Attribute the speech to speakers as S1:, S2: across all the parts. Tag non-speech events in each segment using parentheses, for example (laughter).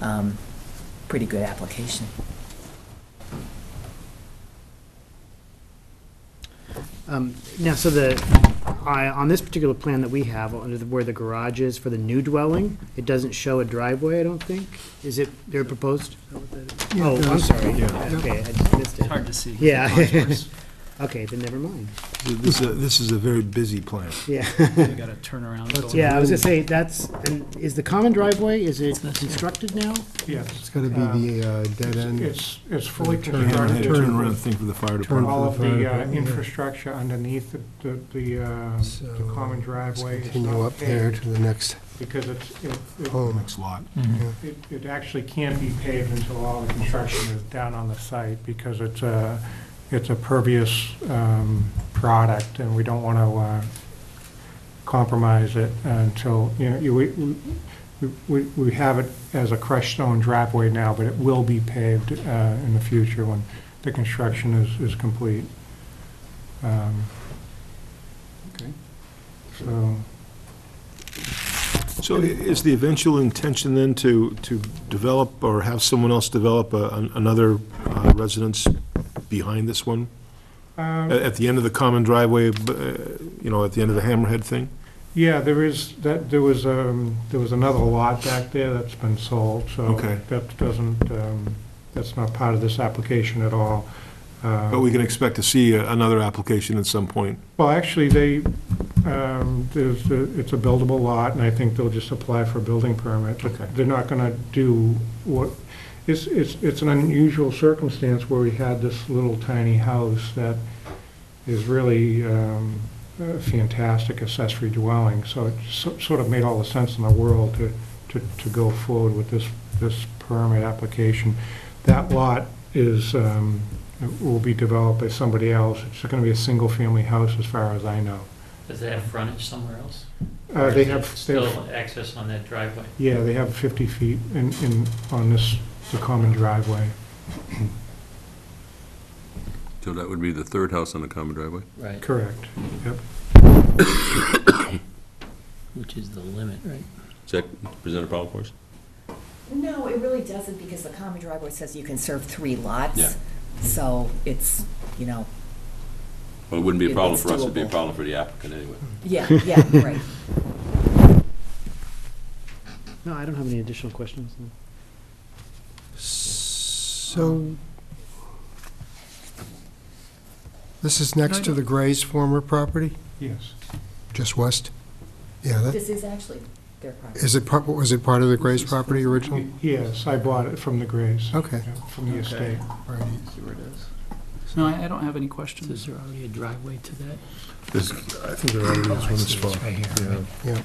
S1: um, pretty good application.
S2: Um, Now, so the, I- on this particular plan that we have, under the- where the garage is for the new dwelling, it doesn't show a driveway, I don't think? Is it, they're proposed? Oh, I'm sorry. Okay, I just missed it.
S3: Hard to see.
S2: Yeah. (laughs) Okay, then never mind.
S4: This is, a- this is a very busy plan.
S2: Yeah,
S3: We got a turnaround. going.
S2: yeah, I was gonna say, that's, and is the common driveway, is it constructed now?
S5: Yes, Um,
S6: It's gonna be the uh, dead end.
S5: it's, it's fully
S4: Turn around-
S5: constructed.
S4: turn around thing for the fire department.
S5: All of the uh,
S6: Yeah.
S5: infrastructure underneath the- the, the, uh, the
S6: So,
S5: common
S6: Let's
S5: driveway is
S6: Continue
S5: not
S6: up there
S5: paved
S6: to the next
S5: because it's, it, it-
S6: home.
S4: Next lot.
S5: it, it actually can't be paved until all the construction is down on the site because it's a, it's a pervious, um, product and we don't want to, uh, compromise it until, you know, you, we, we- we, we have it as a crushed stone driveway now, but it will be paved, uh, in the future when the construction is, is complete. Um,
S3: Okay.
S5: So,
S4: So i- is the eventual intention then to, to develop or have someone else develop a- an- another uh, residence behind this one?
S5: um,
S4: A- At the end of the common driveway, b- uh, you know, at the end of the hammerhead thing?
S5: Yeah, there is, that, there was, um, there was another lot back there that's been sold, so.
S4: Okay.
S5: That doesn't, um, that's not part of this application at all. Uh,
S4: But we can expect to see a- another application at some point.
S5: Well, actually, they, um, there's, a- it's a buildable lot, and I think they'll just apply for a building permit.
S4: Okay.
S5: They're not gonna do what, it's, it's, it's an unusual circumstance where we had this little tiny house that is really um, a fantastic accessory dwelling, so it so- sort of made all the sense in the world to, to, to go forward with this, this permit application. That lot is, um, will be developed by somebody else, it's gonna be a single-family house as far as I know.
S7: Does it have frontage somewhere else?
S5: Uh,
S7: Or
S5: They
S7: is it
S5: have, they have
S7: Still access on that driveway?
S5: Yeah, they have 50 feet in, in, on this, the common driveway.
S8: So that would be the third house on the common driveway?
S7: Right.
S5: Correct.
S7: Which is the limit, right?
S8: Does that present a problem for us?
S1: No, it really doesn't, because the common driveway says you can serve three lots.
S8: Yeah.
S1: So it's, you know,
S8: Well, it wouldn't be a
S1: It-
S8: problem
S1: it's
S8: for us, it'd be a
S1: doable.
S8: problem for the applicant anyway.
S1: yeah, (laughs) yeah, right.
S2: No, I don't have any additional questions. no.
S6: So, this is next to the Gray's former property,
S5: Yes.
S6: just west? Yeah, that,
S1: This is actually their property.
S6: is it, part- was it part of the Gray's property originally?
S5: Yes, I bought it from the Grays,
S6: Okay.
S5: yeah, from the estate.
S6: right.
S3: No, I I don't have any questions.
S7: Is there already a driveway to that? Oh,
S4: There's- I think there already is one this far.
S7: Right here,
S4: Yeah.
S7: right?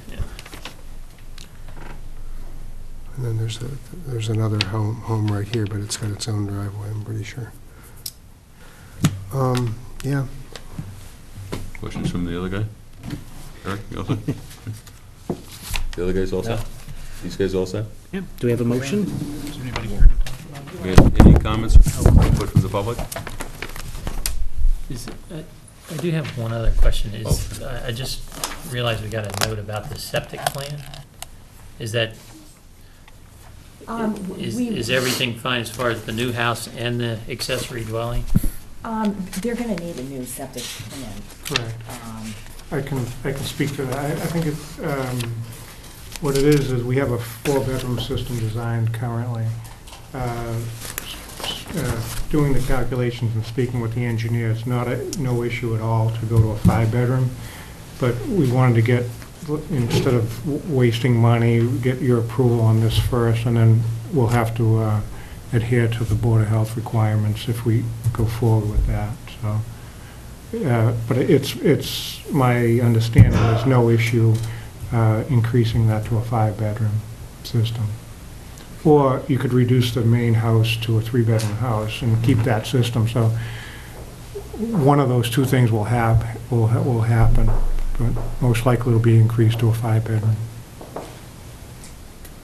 S6: And then there's, a there's another home, home right here, but it's got its own driveway, I'm pretty sure. Um, yeah,
S8: Questions from the other guy? Eric, you all set? The other guys all set? These guys all set?
S2: Yeah, do we have a motion?
S3: Is there anybody here to talk about it?
S8: We have Any comments, input from the public?
S7: Is, I I do have one other question, is,
S4: Oh.
S7: I I just realized we got a note about the septic plan. Is that,
S1: Um,
S7: is
S1: we-
S7: is everything fine as far as the new house and the accessory dwelling?
S1: Um, they're gonna need a new septic plan.
S5: Correct.
S1: Um,
S5: I can, I can speak to that. I, I think it's, um, what it is, is we have a four-bedroom system designed currently. Uh, s- uh, Doing the calculations and speaking with the engineer, it's not a, no issue at all to go to a five-bedroom, but we wanted to get, instead of w- wasting money, get your approval on this first, and then we'll have to uh, adhere to the Board of Health requirements if we go forward with that, so. Uh, But it's, it's, my understanding, there's no issue uh, increasing that to a five-bedroom system. Or you could reduce the main house to a three-bedroom house and keep that system, so one of those two things will hap, will, ha- will happen, but most likely it'll be increased to a five-bedroom.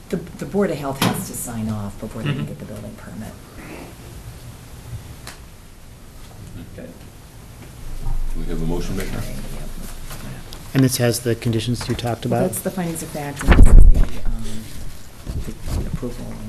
S1: The, the Board of Health has to sign off before they can
S7: Mhm.
S1: get the building permit.
S8: Do we have a motion maker?
S2: And this has the conditions you talked
S1: Well,
S2: about?
S1: That's the findings of fact, and this is the, um, the approval and